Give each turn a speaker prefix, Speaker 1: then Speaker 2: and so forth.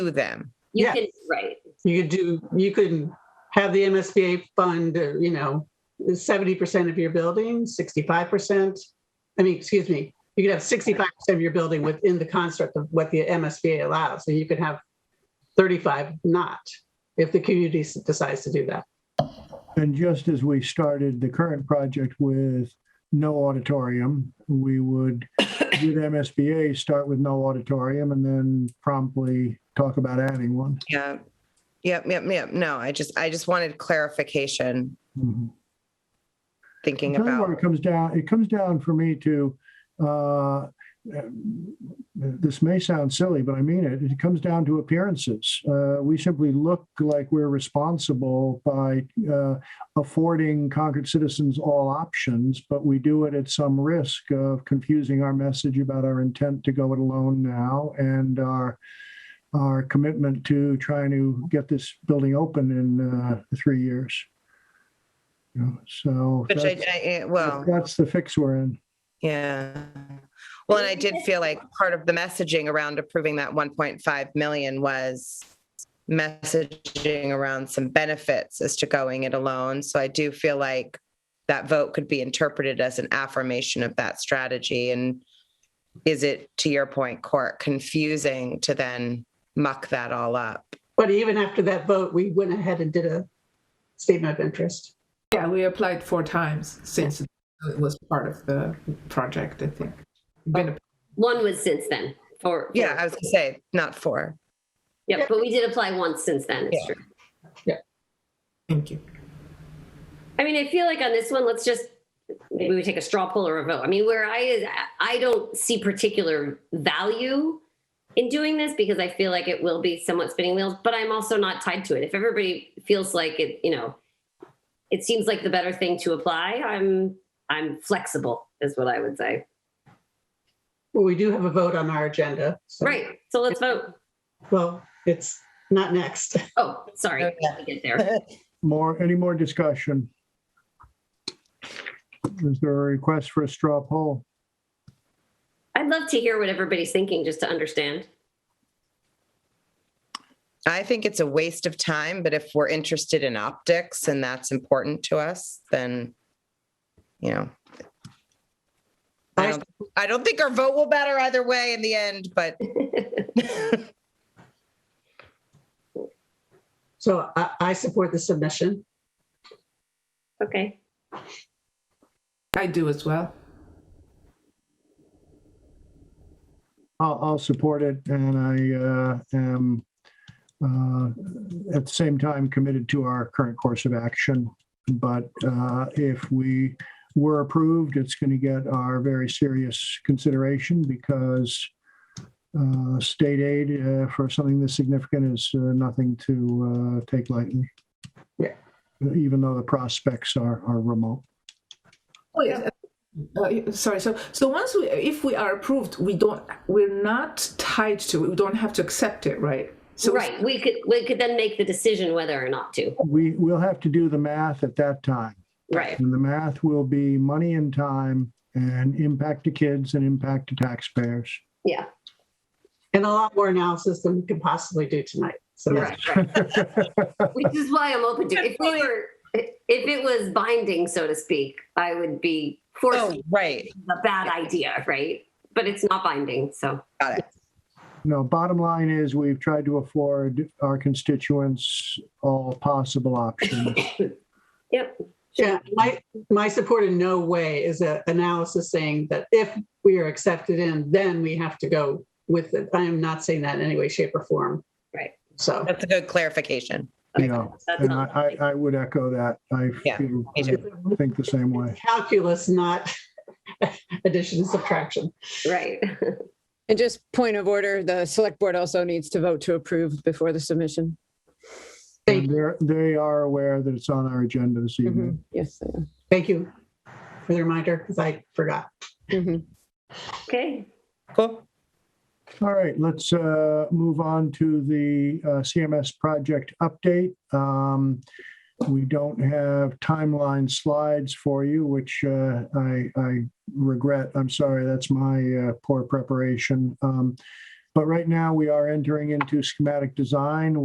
Speaker 1: to them.
Speaker 2: You
Speaker 3: Yeah.
Speaker 2: can, right.
Speaker 3: You could do, you could have the MSBA fund, uh, you know, seventy percent of your building, sixty-five percent. I mean, excuse me, you could have sixty-five percent of your building within the construct of what the MSBA allows. So you could have thirty-five not, if the community s- decides to do that.
Speaker 4: And just as we started the current project with no auditorium, we would, with MSBA, start with no auditorium and then promptly talk about adding one.
Speaker 1: Yeah. Yep, yep, yep. No, I just, I just wanted clarification,
Speaker 4: Mhm.
Speaker 1: thinking
Speaker 4: Tell you what,
Speaker 1: about,
Speaker 4: It comes down, it comes down for me to, uh, this may sound silly, but I mean it, it comes down to appearances. Uh, We simply look like we're responsible by uh, affording Concord citizens all options, but we do it at some risk of confusing our message about our intent to go it alone now and our, our commitment to trying to get this building open in uh, three years. You know, So.
Speaker 1: which I,
Speaker 4: that's-
Speaker 1: I- well,
Speaker 4: that's the fix we're in.
Speaker 1: yeah. Well, and I did feel like part of the messaging around approving that 1.5 million was messaging around some benefits as to going it alone. So I do feel like that vote could be interpreted as an affirmation of that strategy. And is it, to your point, Court, confusing to then muck that all up?
Speaker 3: But even after that vote, we went ahead and did a statement of interest.
Speaker 5: Yeah, we applied four times since it was part of the project, I think. Been a-
Speaker 2: One was since then, for. for-
Speaker 1: Yeah, I was gonna say, not four.
Speaker 2: Yep, but we did apply once since then, it's true.
Speaker 5: Thank you.
Speaker 2: I mean, I feel like on this one, let's just, maybe we take a straw poll or a vote. I mean, where I, I don't see particular value in doing this because I feel like it will be somewhat spinning wheels, but I'm also not tied to it. If everybody feels like it, you know, it seems like the better thing to apply, I'm, I'm flexible is what I would say.
Speaker 3: Well, we do have a vote on our agenda. so-
Speaker 2: Right, so let's vote.
Speaker 3: Well, it's not next.
Speaker 2: Oh, sorry, I have to get there.
Speaker 4: More, any more discussion? Is there a request for a straw poll?
Speaker 2: I'd love to hear what everybody's thinking just to understand.
Speaker 1: I think it's a waste of time, but if we're interested in optics and that's important to us, then, you know. I
Speaker 3: I-
Speaker 1: don't, I don't think our vote will matter either way in the end, but
Speaker 3: So I, I support the submission.
Speaker 2: Okay.
Speaker 5: I do as well.
Speaker 4: I'll, I'll support it and I uh, am uh, at the same time committed to our current course of action. But uh, if we were approved, it's going to get our very serious consideration because uh, state aid uh, for something this significant is uh, nothing to uh, take lightly.
Speaker 3: Yeah.
Speaker 4: Even though the prospects are, are remote.
Speaker 5: Oh, yes. Uh, sorry. So, so once we, if we are approved, we don't, we're not tied to, it. we don't have to accept it, right? So it's-
Speaker 2: Right, we could, we could then make the decision whether or not to.
Speaker 4: We, we'll have to do the math at that time.
Speaker 2: Right,
Speaker 4: And the math will be money and time and impact to kids and impact to taxpayers.
Speaker 2: yeah.
Speaker 3: And a lot more analysis than we could possibly do tonight. So that's,
Speaker 2: Right, right. Which is why I'm open to, if we were, if it was binding, so to speak, I would be forced,
Speaker 1: oh, right,
Speaker 2: a bad idea, right? But it's not binding, so,
Speaker 1: got it.
Speaker 4: No, bottom line is we've tried to afford our constituents all possible options.
Speaker 2: yep.
Speaker 3: yeah, my, my support in no way is an analysis saying that if we are accepted in, then we have to go with it. I am not saying that in any way, shape or form.
Speaker 2: Right.
Speaker 3: So
Speaker 1: That's a good clarification.
Speaker 4: You know,
Speaker 2: That's
Speaker 4: And I,
Speaker 2: not,
Speaker 4: I I would echo that. I
Speaker 1: Yeah,
Speaker 4: feel-
Speaker 1: me too.
Speaker 4: I think the same way.
Speaker 3: calculus, not addition and subtraction.
Speaker 2: right.
Speaker 6: And just point of order, the select board also needs to vote to approve before the submission.
Speaker 3: Thank,
Speaker 4: And they're, they are aware that it's on our agenda this
Speaker 1: Mm-hmm.
Speaker 4: evening.
Speaker 6: Yes. they are.
Speaker 3: thank you for the reminder because I forgot.
Speaker 6: Mhm.
Speaker 2: Okay,
Speaker 1: Cool.
Speaker 4: All right, let's uh, move on to the uh, CMS project update. Um, We don't have timeline slides for you, which uh, I I regret. I'm sorry, that's my uh, poor preparation. Um, But right now, we are entering into schematic design.